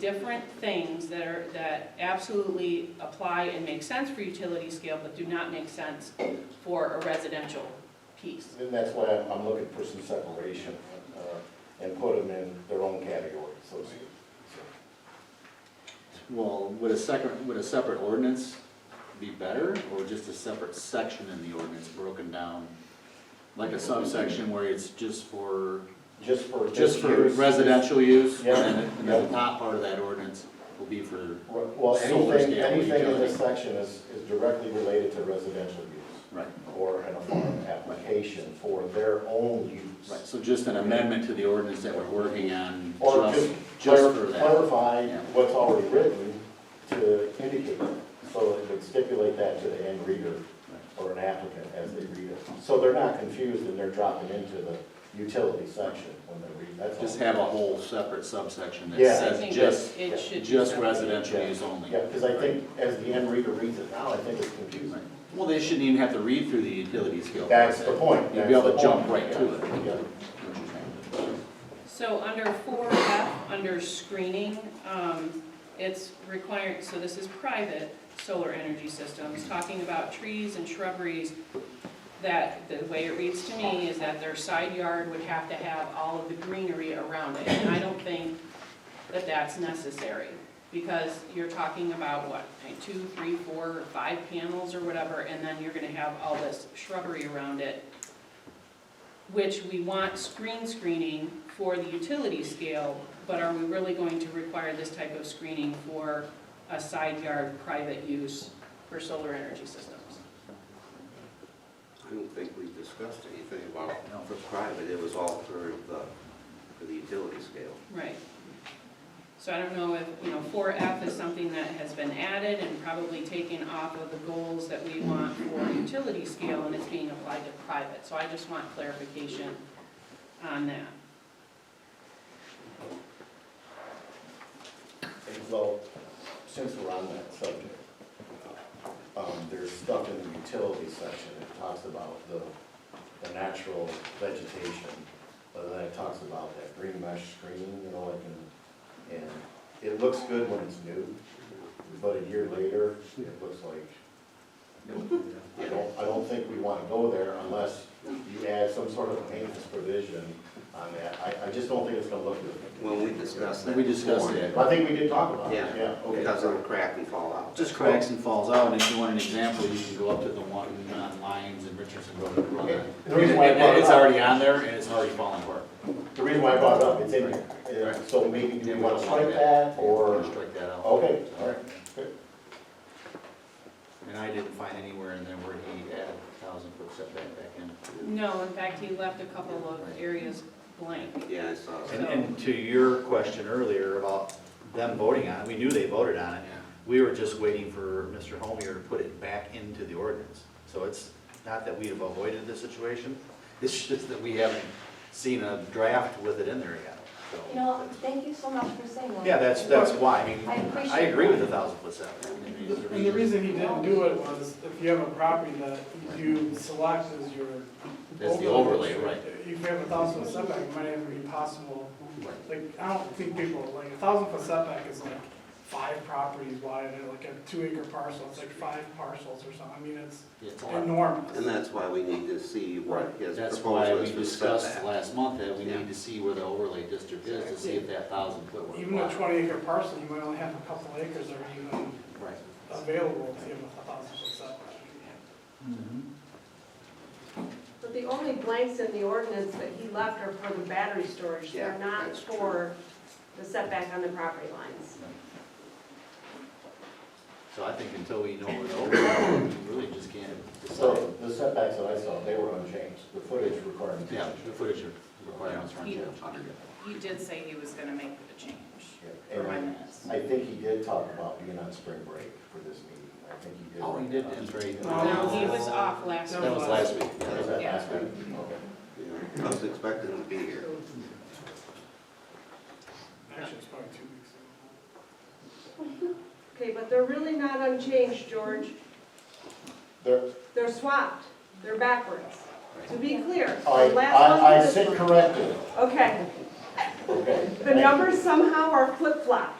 different things that are, that absolutely apply and make sense for utility scale, but do not make sense for a residential piece. And that's why I'm- I'm looking for some separation uh, and put them in their own category, so to speak. So, Well, would a second, would a separate ordinance be better, or just a separate section in the ordinance broken down? Like a subsection where it's just for, Just for. just for use, residential use? Yeah, And then- and then the yeah. top part of that ordinance will be for, Well, Solar anything, scale anything in utility. this section is, is directly related to residential use right, or in a farm application for their own use. right, so just an amendment to the ordinance that we're working on, Or just, just just for clar- that. clarify Yeah. what's already written to indicate, that. so it would stipulate that to the end reader or an applicant as they read it. So they're not confused and they're dropping into the utility section when they read, that's all. Just have a whole separate subsection that Yeah. I I says think just, it- it should be just separate. residential use only. Yeah, because I think as the end reader reads it now, I think it's confusing. Well, they shouldn't even have to read through the utility scale. That's the point. You'd be able to That's the jump point. right to it. Yeah. So under four F, under screening, um, it's required, so this is private solar energy systems, talking about trees and shrubberies. That, the way it reads to me is that their side yard would have to have all of the greenery around it. And I don't think that that's necessary, because you're talking about what, like two, three, four, or five panels or whatever, and then you're gonna have all this shrubbery around it which we want screen screening for the utility scale, but are we really going to require this type of screening for a side yard private use for solar energy systems? I don't think we discussed anything about No. for private, it was all for the, for the utility scale. Right. So I don't know if, you know, four F is something that has been added and probably taken off of the goals that we want for utility scale, and it's being applied to private. So I just want clarification on that. And so, since we're on that subject, um, there's stuff in the utility section that talks about the, the natural vegetation. But then it talks about that green mesh screen, you know, like, and, and it looks good when it's new, but a year later, it looks like, I don't, I don't think we wanna go there unless you add some sort of maintenance provision on that. I, I just don't think it's gonna look good. When we discussed that. We discussed before. it. I think we did talk about it, yeah, Yeah, okay. because it'll crack and fall out. Just cracks and falls out, and if you want an example, you can go up to the one on Lyons and Richardson Road. and run it. The reason why I brought it It's up- already on there, and it's already falling apart. The reason why I brought it up, it's in there, Uh, so maybe do we wanna strike that, or, Strike that out. okay, all right. And I didn't find anywhere in there where he added thousand foot setback back in. No, in fact, he left a couple of areas blank. Yeah, uh, I saw And, that. and to your question earlier about them voting on it, we knew they voted on it. We were just waiting for Mr. Homier to put it back into the ordinance. So it's not that we have avoided this situation, it's just that we haven't seen a draft with it in there yet, so. You know, thank you so much for saying that. Yeah, that's, that's why, I mean, I appreciate I agree with the thousand foot setback. And the reason he didn't do it was if you have a property that you select as your. That's the overlay, right. If you have a thousand foot setback, it might even be possible, like, I don't think people, like, a thousand foot setback is like five properties wide, and like a two acre parcel, it's like five parcels or something, I mean, it's It's a lot. enormous. And that's why we need to see what his That's proposal why we is for discussed setback. last month that we Yeah. need to see where the overlay district is, to see if that thousand foot. would Even a apply. twenty acre parcel, you might only have a couple acres that are even Right. available to give a thousand foot setback. But the only blanks in the ordinance that he left are for the battery storage, Yeah, they're not that's true. for the setback on the property lines. So I think until we know where the overlay, is, we really just can't decide. So the setbacks that I saw, they were unchanged, the footage requirements. Yeah, the footage requirements are on Yeah. tape. He did say he was gonna make a change Yeah, for my And minutes. I think he did talk about being on spring break for this meeting, I think he did. Oh, he did, that's right. No, he was off last No. That was last week. Was that last week? Okay. Yeah, I was expecting him to be here. Actually, it's probably two weeks. ago. Okay, but they're really not unchanged, George. There, They're swapped, they're backwards. To be clear, I, the last I, one I to this sit one. corrected, Okay, okay. the numbers somehow are flip-flopped.